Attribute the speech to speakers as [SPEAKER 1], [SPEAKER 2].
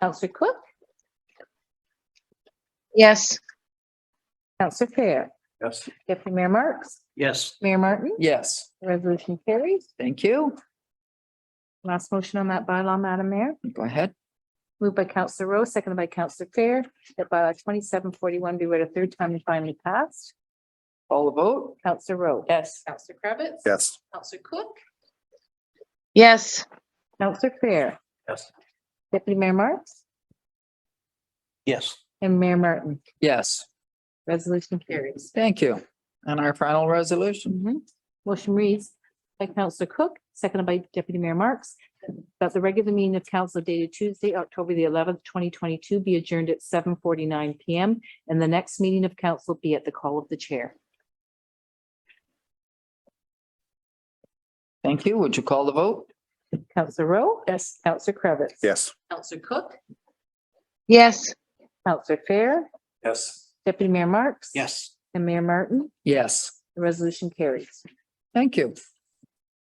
[SPEAKER 1] Counselor Cook,
[SPEAKER 2] Yes.
[SPEAKER 1] Counselor Fair,
[SPEAKER 3] Yes.
[SPEAKER 1] Deputy Mayor Marks,
[SPEAKER 3] Yes.
[SPEAKER 1] Mayor Martin,
[SPEAKER 4] Yes,
[SPEAKER 1] resolution carries.
[SPEAKER 4] thank you.
[SPEAKER 1] Last motion on that bylaw, Madam Mayor.
[SPEAKER 4] Go ahead.
[SPEAKER 1] Moved by Counselor Rowe, seconded by Counselor Fair, that bylaw twenty-seven forty-one be read a third time and finally passed.
[SPEAKER 4] Call the vote.
[SPEAKER 1] Counselor Rowe.
[SPEAKER 4] Yes.
[SPEAKER 1] Counselor Kravitz,
[SPEAKER 3] Yes.
[SPEAKER 1] Counselor Cook.
[SPEAKER 2] Yes.
[SPEAKER 1] Counselor Fair.
[SPEAKER 3] Yes.
[SPEAKER 1] Deputy Mayor Marks
[SPEAKER 3] Yes.
[SPEAKER 1] and Mayor Martin.
[SPEAKER 4] Yes,
[SPEAKER 1] Resolution carries.
[SPEAKER 4] thank you. And our final resolution.
[SPEAKER 1] Mhm. Motion reads by Counselor Cook, seconded by Deputy Mayor Marks, that the regular meeting of council dated Tuesday, October the eleventh, twenty twenty-two be adjourned at seven forty-nine PM and the next meeting of council be at the call of the chair.
[SPEAKER 4] Thank you. Would you call the vote?
[SPEAKER 1] Counselor Rowe. Yes. Counselor Kravitz.
[SPEAKER 3] Yes.
[SPEAKER 1] Counselor Cook.
[SPEAKER 2] Yes.
[SPEAKER 1] Counselor Fair.
[SPEAKER 3] Yes.
[SPEAKER 1] Deputy Mayor Marks.
[SPEAKER 3] Yes.
[SPEAKER 1] And Mayor Martin.
[SPEAKER 4] Yes,
[SPEAKER 1] The resolution carries.
[SPEAKER 4] thank you.